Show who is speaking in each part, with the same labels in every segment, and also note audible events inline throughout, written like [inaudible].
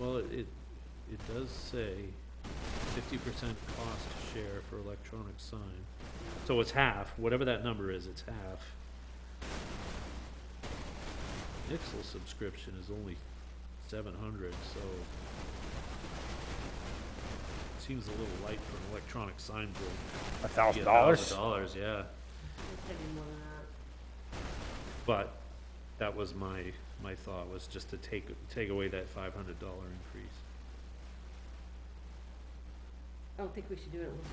Speaker 1: Well, it, it it does say fifty percent cost share for electronic sign. So it's half, whatever that number is, it's half. Nixle subscription is only seven hundred, so seems a little light for an electronic sign bill.
Speaker 2: A
Speaker 1: Be
Speaker 2: thousand
Speaker 1: a
Speaker 2: dollars?
Speaker 1: Dollars, yeah.
Speaker 3: It's gonna be more than that.
Speaker 1: But that was my, my thought, was just to take, take away that five hundred dollar increase.
Speaker 3: I don't think we should do it unless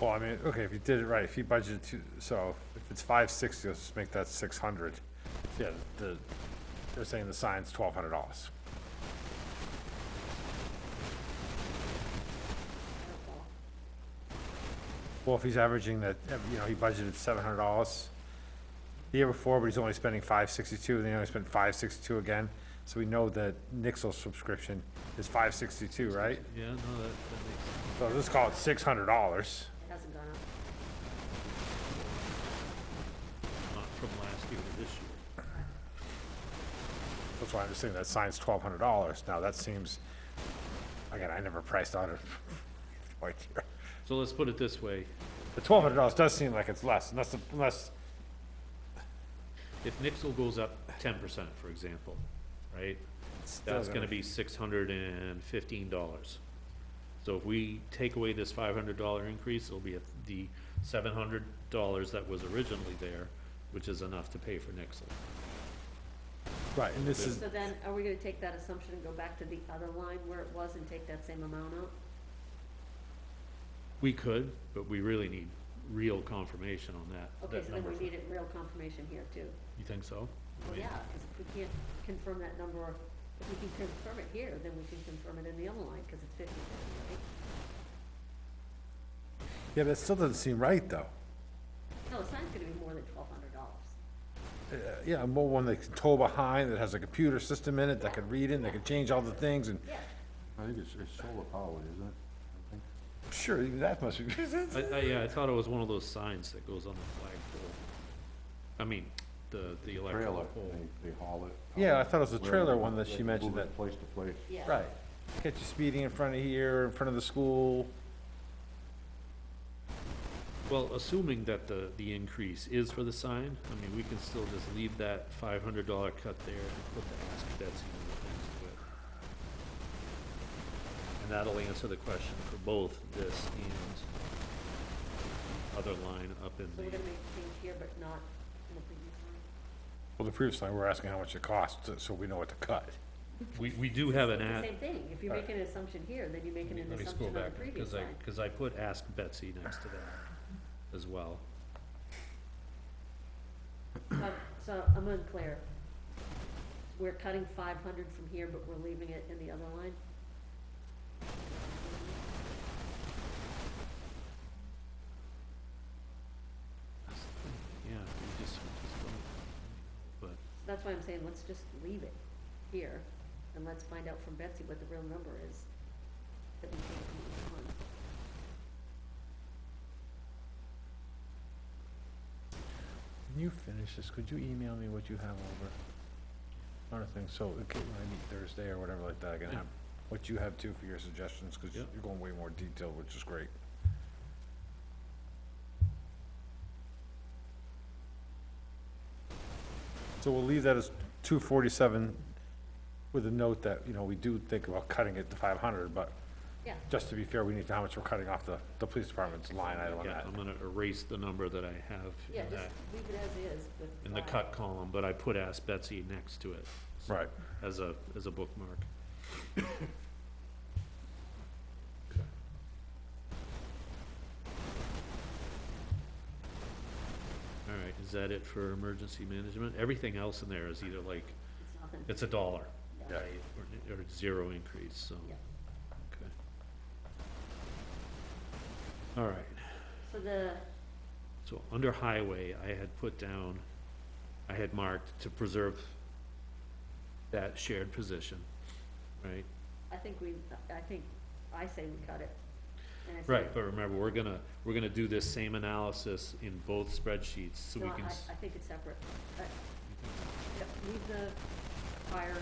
Speaker 3: we know.
Speaker 2: Well, I mean, okay, if you did it right, if you budgeted two, so if it's five sixty, let's just make that six hundred. Yeah, the, they're saying the sign's twelve hundred dollars.
Speaker 3: I don't follow.
Speaker 2: Well, if he's averaging that, you know, he budgeted seven hundred dollars the year before, but he's only spending five sixty-two, then he only spent five sixty-two again. So we know that Nixle subscription is five sixty-two, right?
Speaker 1: Yeah, no, that, that makes sense.
Speaker 2: So let's call it six hundred dollars.
Speaker 3: It hasn't gone up.
Speaker 1: not uh, from last year to this year.
Speaker 2: That's why I'm just saying that sign's twelve hundred dollars. Now, that seems, again, I never priced out it. [laughs] Like,
Speaker 1: So let's put it this way,
Speaker 2: The twelve hundred dollars does seem like it's less, unless, unless,
Speaker 1: if Nixle goes up ten percent, for example, right? That's gonna be six hundred and fifteen dollars. So if we take away this five hundred dollar increase, it'll be at the seven hundred dollars that was originally there, which is enough to pay for Nixle.
Speaker 2: Right, and this is,
Speaker 3: So then, are we gonna take that assumption and go back to the other line where it was and take that same amount out?
Speaker 1: We could, but we really need real confirmation on that,
Speaker 3: Okay,
Speaker 1: that
Speaker 3: so then
Speaker 1: number.
Speaker 3: we need it real confirmation here too.
Speaker 1: You think so? I
Speaker 3: Well,
Speaker 1: mean,
Speaker 3: yeah, because if we can't confirm that number, or if we can confirm it here, then we can confirm it in the other line, because it's fifty fifty,
Speaker 2: yeah, but it still doesn't seem right, though.
Speaker 3: right? No, the sign's gonna be more than twelve hundred dollars.
Speaker 2: Uh, Yeah, a more one they can tow behind, that has a computer system in it, that could read in, that could change all the things, and
Speaker 3: Yeah,
Speaker 4: I think it's, it's solar powered, isn't it? I think.
Speaker 2: sure, even that must be, [laughs]
Speaker 1: I, I, yeah, I thought it was one of those signs that goes on the flagpole. I mean, the, the electrical
Speaker 4: Trailer,
Speaker 1: pole.
Speaker 4: they, they haul it.
Speaker 2: Yeah, I thought it was the
Speaker 4: Wherever
Speaker 2: trailer
Speaker 4: they
Speaker 2: one
Speaker 4: want,
Speaker 2: that
Speaker 4: they
Speaker 2: she
Speaker 4: can
Speaker 2: mentioned
Speaker 4: move it
Speaker 2: that-
Speaker 4: Place to place.
Speaker 3: yeah.
Speaker 2: right. Get you speeding in front of here, in front of the school,
Speaker 1: Well, assuming that the, the increase is for the sign, I mean, we can still just leave that five hundred dollar cut there and put the ask Betsy number next to it. And that'll answer the question for both this and other line up in
Speaker 3: So we're
Speaker 1: the,
Speaker 3: gonna make a change here, but not in the previous line?
Speaker 2: well, the previous line, we're asking how much it costs, so we know what to cut.
Speaker 1: we, we do have an
Speaker 3: It's
Speaker 1: ask.
Speaker 3: the same thing, if you
Speaker 2: Right.
Speaker 3: make an assumption here, then you make an
Speaker 1: Let me
Speaker 3: assumption
Speaker 1: scroll
Speaker 3: on the
Speaker 1: back,
Speaker 3: previous
Speaker 1: cause I,
Speaker 3: line.
Speaker 1: cause I put ask Betsy next to that as well.
Speaker 3: So, so I'm unclear. We're cutting five hundred from here, but we're leaving it in the other line?
Speaker 1: That's the thing, Yeah, we just, we just don't, but.
Speaker 3: That's why I'm saying, let's just leave it here, and let's find out from Betsy what the real number is that we take from each one.
Speaker 2: When you finish this, could you email me what you have over? Not a thing, so, okay, when I meet Thursday or whatever like that, I can
Speaker 1: Yeah.
Speaker 2: have what you have too for your suggestions, cause
Speaker 1: Yeah.
Speaker 2: you're going way more detailed, which is great. So we'll leave that as two forty-seven with a note that, you know, we do think about cutting it to five hundred, but
Speaker 3: Yeah.
Speaker 2: just to be fair, we need to know how much we're cutting off the, the police department's line item on
Speaker 1: Yeah,
Speaker 2: that.
Speaker 1: I'm gonna erase the number that I have
Speaker 3: Yeah,
Speaker 1: in
Speaker 3: just
Speaker 1: that,
Speaker 3: leave it as is with
Speaker 1: in the
Speaker 3: five.
Speaker 1: cut column, but I put ask Betsy next to it. so-
Speaker 2: Right.
Speaker 1: As a, as a bookmark. [coughs] All right, is that it for emergency management? Everything else in there is either like,
Speaker 3: It's nothing.
Speaker 1: it's a dollar,
Speaker 3: Yeah.
Speaker 1: right, or, or zero increase, so,
Speaker 3: Yeah.
Speaker 1: okay. All right.
Speaker 3: So the,
Speaker 1: So under highway, I had put down, I had marked to preserve that shared position, right?
Speaker 3: I think we, I think, I say we cut it. And I say-
Speaker 1: Right, but remember, we're gonna, we're gonna do this same analysis in both spreadsheets, so
Speaker 3: No,
Speaker 1: we
Speaker 3: I,
Speaker 1: can. s-
Speaker 3: I think it's separate. I- Yep, Leave the fire